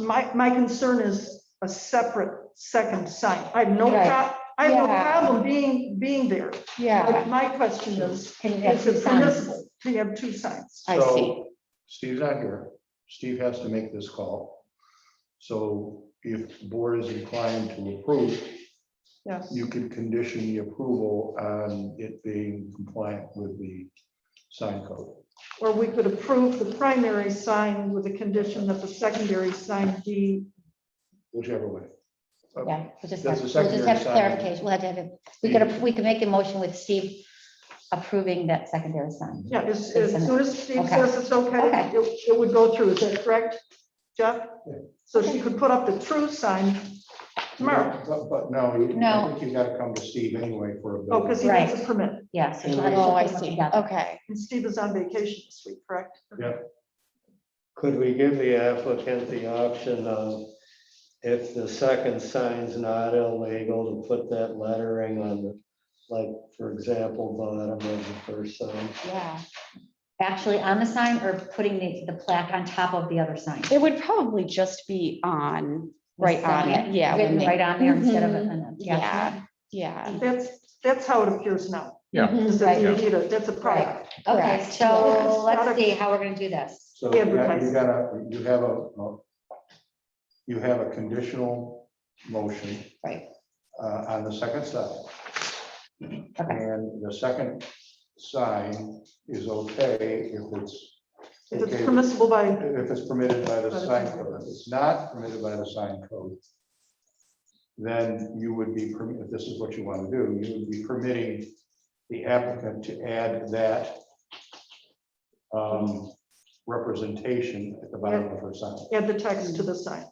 My, my concern is a separate second sign. I have no, pro- Right. I have no Yeah. problem being, being there. Yeah. But My question is, Can you have is two it signs? permissible to have two signs? I So, see. Steve's not here. Steve has to make this call. So if the board is inclined to approve, Yes. you could condition the approval on it being compliant with the sign code. Or we could approve the primary sign with the condition that the secondary sign be, Whichever way. Yeah, we'll just have, That's the we'll just secondary have sign. clarification. We'll have to have, it. we could, we could make a motion with Steve approving that secondary sign. yeah, as, as soon as Steve Okay. says it's okay, Okay. it, it would go through. Is that correct, Jeff? Yeah. So she could put up the true sign tomorrow. But, but no, you- I No. think you gotta come to Steve anyway for a. Oh, because he needs a permit. Yeah. so we'll have to Oh, I put them see. together. Okay. And Steve is on vacation this week, correct? Yeah. Could we give the applicant the option of, if the second sign's not illegal, to put that lettering on the, like, for example, bottom of the first sign? Yeah. Actually on the sign or putting the, the plaque on top of the other sign? It would probably just be on, right on it. Yeah. Written when they- right on there instead of Mhm. an attachment. Yeah, yeah. That's, that's how it appears now. Yeah. Is Mm-hmm. that you need a- that's a product. Right. Okay, Correct. so let's see how we're gonna do this. So you got- Advertise. you gotta, you have a, a- you have a conditional motion. Right. uh, on the second side. And the second sign is okay if it's, If it's Okay. permissible by, if it's permitted by By the the sign sign. code. If it's not permitted by the sign code, then you would be, perm- if this is what you want to do, you would be permitting the applicant to add that um, representation at the bottom of her sign. add the text to the sign.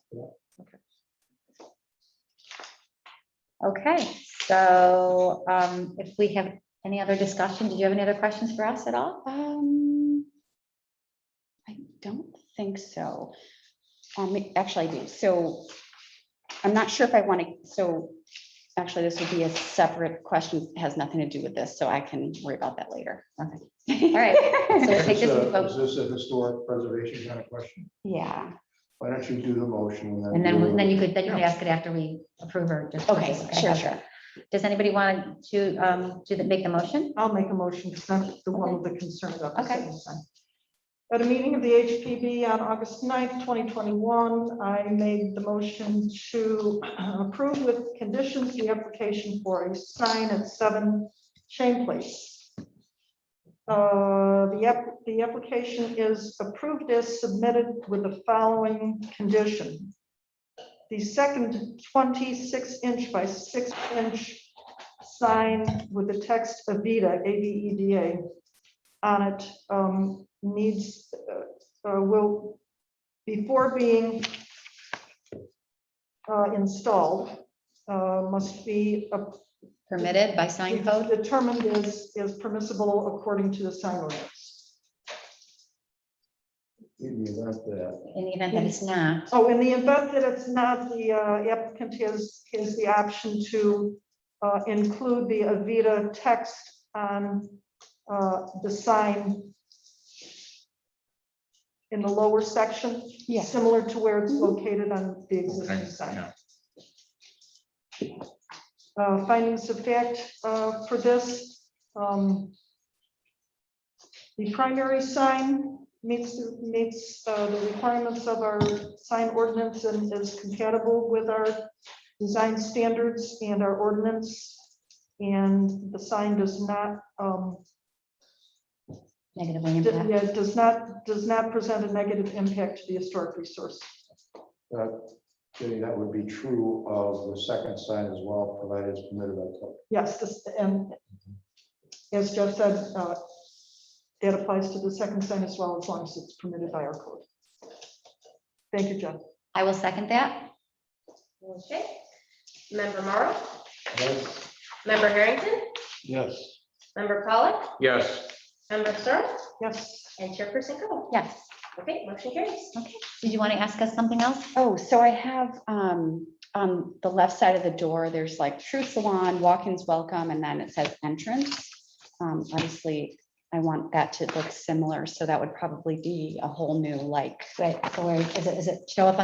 Okay, so um, if we have any other discussion, did you have any other questions for us at all? Um, I don't think so. Um, actually, I do. So I'm not sure if I want to, so actually, this would be a separate question, has nothing to do with this, so I can worry about that later. Okay. All All right, so we'll take Is this, this and a- vote. is this a historic preservation kind of question? Yeah, Why don't you do the motion? and then, do- then you could, then you could ask it after we approve or just. okay, sure, sure. Does anybody want to um, do the, make the motion? I'll make a motion because I'm the one with the concern about the Okay. second sign. At a meeting of the HPB on August 9th, 2021, I made the motion to approve with conditions the application for a sign at 7 Shane Place. Uh, The app, the application is approved as submitted with the following condition. The second 26-inch by 6-inch sign with the text Aveda, A-V-E-D-A, E on it um, needs, uh, uh, will, before being uh, installed, uh, must be a- Permitted by sign code? Determined is, is permissible according to the sign ordinance. In the event that, In the event that it's not, So Oh, in the event that it's not, the uh, applicant has, has the option to uh, include the Avita text on uh, the sign in the lower section, Yeah. similar to where it's located on the existing sign. yeah. Uh, Findings of fact uh, for this. um, The primary sign meets, meets uh, the requirements of our sign ordinance and is compatible with our design standards and our ordinance. And the sign does not, um, negatively d- impact. yeah, does not, does not present a negative impact to the historic resource. Jenny, that would be true of the second sign as well, provided it's permitted by code. Yes, this, and as Jeff said, uh, that applies to the second sign as well, as long as it's permitted by our code. Thank you, Jeff. I will second that. Okay. Member Morrow? Member Harrington? Yes. Member Pollock? Yes, Member Searle? Yes. And Chairperson Coe? Yes. Okay, motion carries. Did you want to ask us something else? Oh, so I have, um, on the left side of the door, there's like true salon, walk-ins welcome, and then it says entrance. Um, obviously, I want that to look similar, so that would probably be a whole new like Right, so where, is it, is it show up on